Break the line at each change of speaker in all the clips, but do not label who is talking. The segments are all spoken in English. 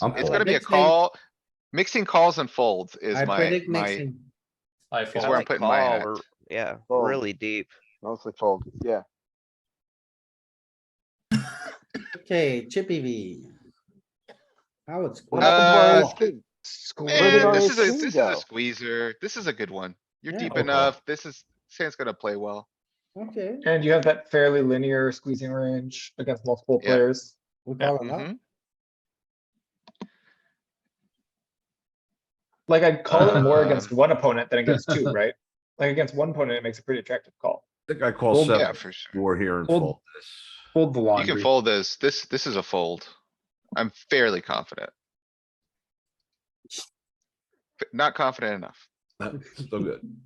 I'm
It's
for
gonna
it.
be a
Mixing.
call. Mixing calls and folds is
I
my,
predict
my,
mixing.
I
is
fold.
where I'm
like
putting my
call
hat.
or- Yeah,
Fold.
really deep.
mostly fold, yeah.
Okay, chippy V. How it's.
What
going.
Uh,
happened to our ace king?
Eh,
on
this
ace
is a,
king,
this is
though?
a squeezer. This is a good one. You're
Yeah.
deep
Okay.
enough. This is, Sam's gonna play well.
Okay,
And you have that fairly linear squeezing range against multiple
Yeah.
players.
we
Yeah,
call it up.
Mhm.
Like I'd call it more against one opponent than against two, right? Like against one opponent, it makes a pretty attractive call.
I think I call
Well,
Yeah,
seven
for sure.
four here and
Fold.
fold this.
Hold the
You can
laundry.
fold this. This, this is a fold. I'm fairly confident. F- Not confident enough.
So good.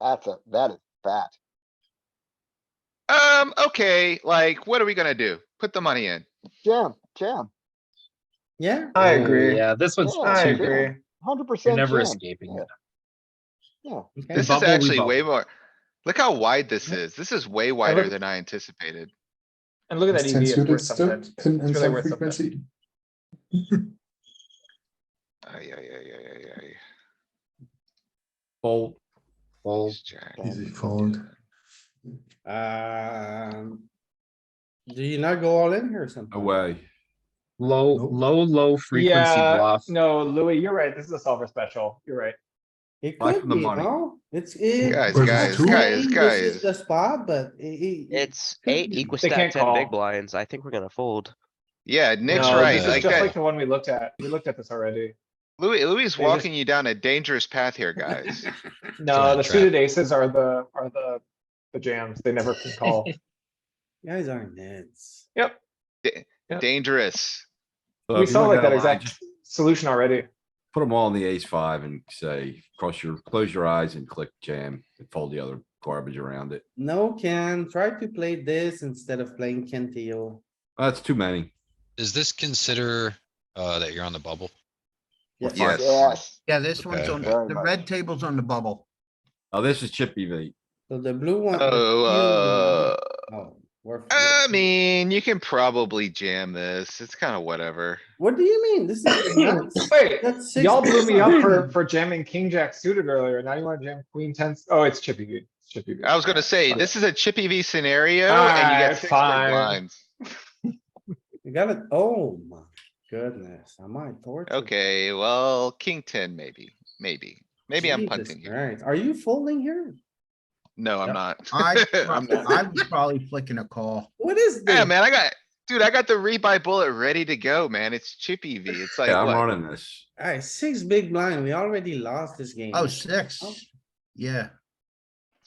That's a, that is fat.
Um, okay, like, what are we gonna do? Put the money in.
Jam, jam,
Yeah,
I
Ooh,
agree.
Yeah, this one's,
Yeah,
I
it's
too
a good
agree.
hundred
you're
percent
never
jam.
escaping
Yeah.
it.
Yeah,
okay.
This is
bubble, we
actually way
bubble.
more. Look how wide this is. This is way wider
look-
than I anticipated.
And look at that EV, it's worth something. It's
in- in
really
some
worth something.
frequency.
Ay, ay, ay, ay, ay, ay.
Fold.
Fold.
Ace jack.
Easy
fold.
Um. Do you not go all in here or something?
Away.
Low, low, low frequency
Yeah,
bluff.
no, Louis, you're right. This is a solver special. You're right.
It
Life
could
of the
be,
money.
no? It's. it-
Guys,
it's
guys,
strange,
guys,
this is
guys.
The spot, but it- it-
It's eight
be.
equal
They
stack
can't
ten big
call.
blinds. I think we're gonna fold.
Yeah, Nick's
No,
right.
This is
Like
just like
that,
the one we looked at. We looked at this already.
Louis, Louis is
they just-
walking you down a dangerous path here, guys.
No, the suited aces are the, are the, the jams. They never can call.
Guys are nuts.
Yep.
Dangerous.
So
We
if you
saw
went down
like that
a line,
exact
just
solution already.
Put them all in the ace five and say, cross your, close your eyes and click jam and fold the other garbage around it.
No, Ken, try to play this instead of playing Ken Teo.
That's too many.
Does this consider, uh, that you're on the bubble?
Yes.
yes.
Yeah, this one's
Okay.
on,
Very
the
much.
red table's on the bubble.
Oh, this is chippy V.
So the blue
Uh,
one. the blue
Oh, uh,
one- oh, we're-
I mean, you can probably jam this. It's kinda whatever.
What do you mean? This is nuts.
Wait,
That's six
y'all blew me up
percent.
for, for jamming king jack suited earlier. Now you wanna jam queen ten? Oh, it's chippy V. It's Chippy V.
I was gonna say,
Okay.
this is a chippy V scenario and you
Alright,
got six big
fine.
blinds.
You got it. Oh my goodness, am I tortured?
Okay, well, king ten maybe, maybe. Maybe I'm punting here.
Alright, are you folding here?
No, I'm
Yep.
not.
I,
I'm not.
I was probably flicking a call.
What is this?
Yeah, man, I got, dude, I got the rebuy bullet ready to go, man. It's chippy V. It's like,
Yeah, I'm
what?
running this.
Alright, six big blind, we already lost this game.
Oh, six. Yeah.
that's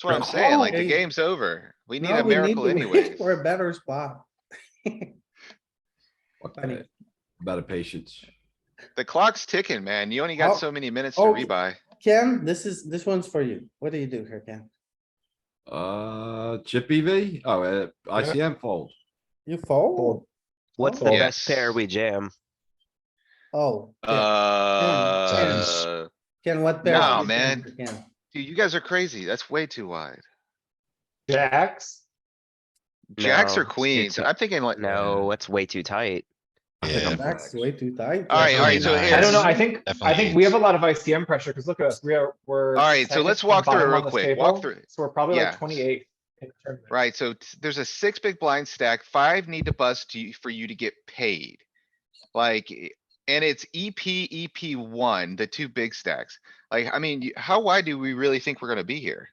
what I'm saying. Like, the
Oh.
game's over. We need
Now
a
we
miracle
to
anyway.
wait For a better spot.
Fuck
Funny.
that. About a patience.
The clock's ticking, man. You only
Oh.
got so many minutes to
Oh.
rebuy.
Ken, this is, this one's for you. What do you do here, Ken?
Uh, chippy V? Oh, uh, ICM fold.
You fold?
What's the
Fold.
best pair we jam?
Oh. Ken-
Uh,
Ken, what pair?
no,
is this
man.
for Ken?
dude, you guys are crazy. That's way too wide.
Jacks?
Jacks
No,
or
it's too
queens?
tight.
I'm thinking like,
No, it's way too tight.
I think
Yeah.
I'm relaxed.
That's way too tight.
Alright, alright,
alright,
so
so
I don't know. I
here's,
think, I
Definitely
think we have a
eights.
lot of ICM pressure, cause look at us, we are, we're.
Alright, so
second
let's
from
walk through it
bottom
real
on this
quick. Walk
table,
through it.
So we're probably
Yeah.
like twenty-eight. in the tournament.
right, so t- there's a six big blind stack, five need to bust you for you to get paid. Like, i- and it's E EP, EP one, the two big stacks. Like, I mean, you- how wide do we really think we're gonna be here?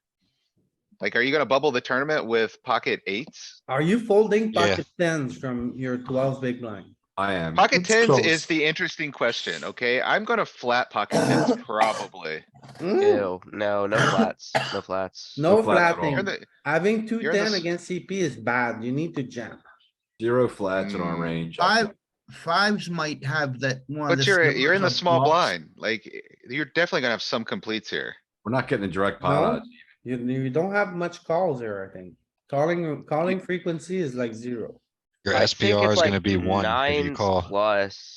Like, are you gonna bubble the tournament with pocket eights?
Are you folding
Yeah.
pocket tens from your twelve big blind?
I am.
Pocket
It's
tens
close.
is the interesting question, okay? I'm gonna flat pocket tens probably.
Hmm,
Ew, no, no flats, no flats.
No
No flats at
You're
flatting.
the-
Having two
You're the
ten
s-
against CP is bad. You need to jam.
Zero flats in
Hmm,
our
Mm.
range. I
Five,
think.
fives might have that one.
But
of the
you're, you're in the
snippers
small
on blocks.
blind, like, eh, you're definitely gonna have some completes here.
We're not getting a direct pot
No,
odds.
you, you don't have much calls here, I think. Calling, calling frequency is like zero.
Your
I think
SPR
it's
is gonna
like
be one if you
nines
call.
Plus.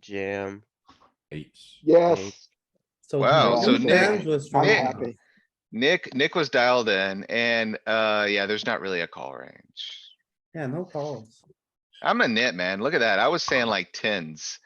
Jam.
Eights.
Yes,
eights.
So
Wow,
so
two
Nick-
tens was from.
I'm
Nick-
happy.
Nick, Nick was dialed in and, uh, yeah, there's not really a call range.
Yeah, no calls.
I'm a nit, man. Look at that. I was saying like tens.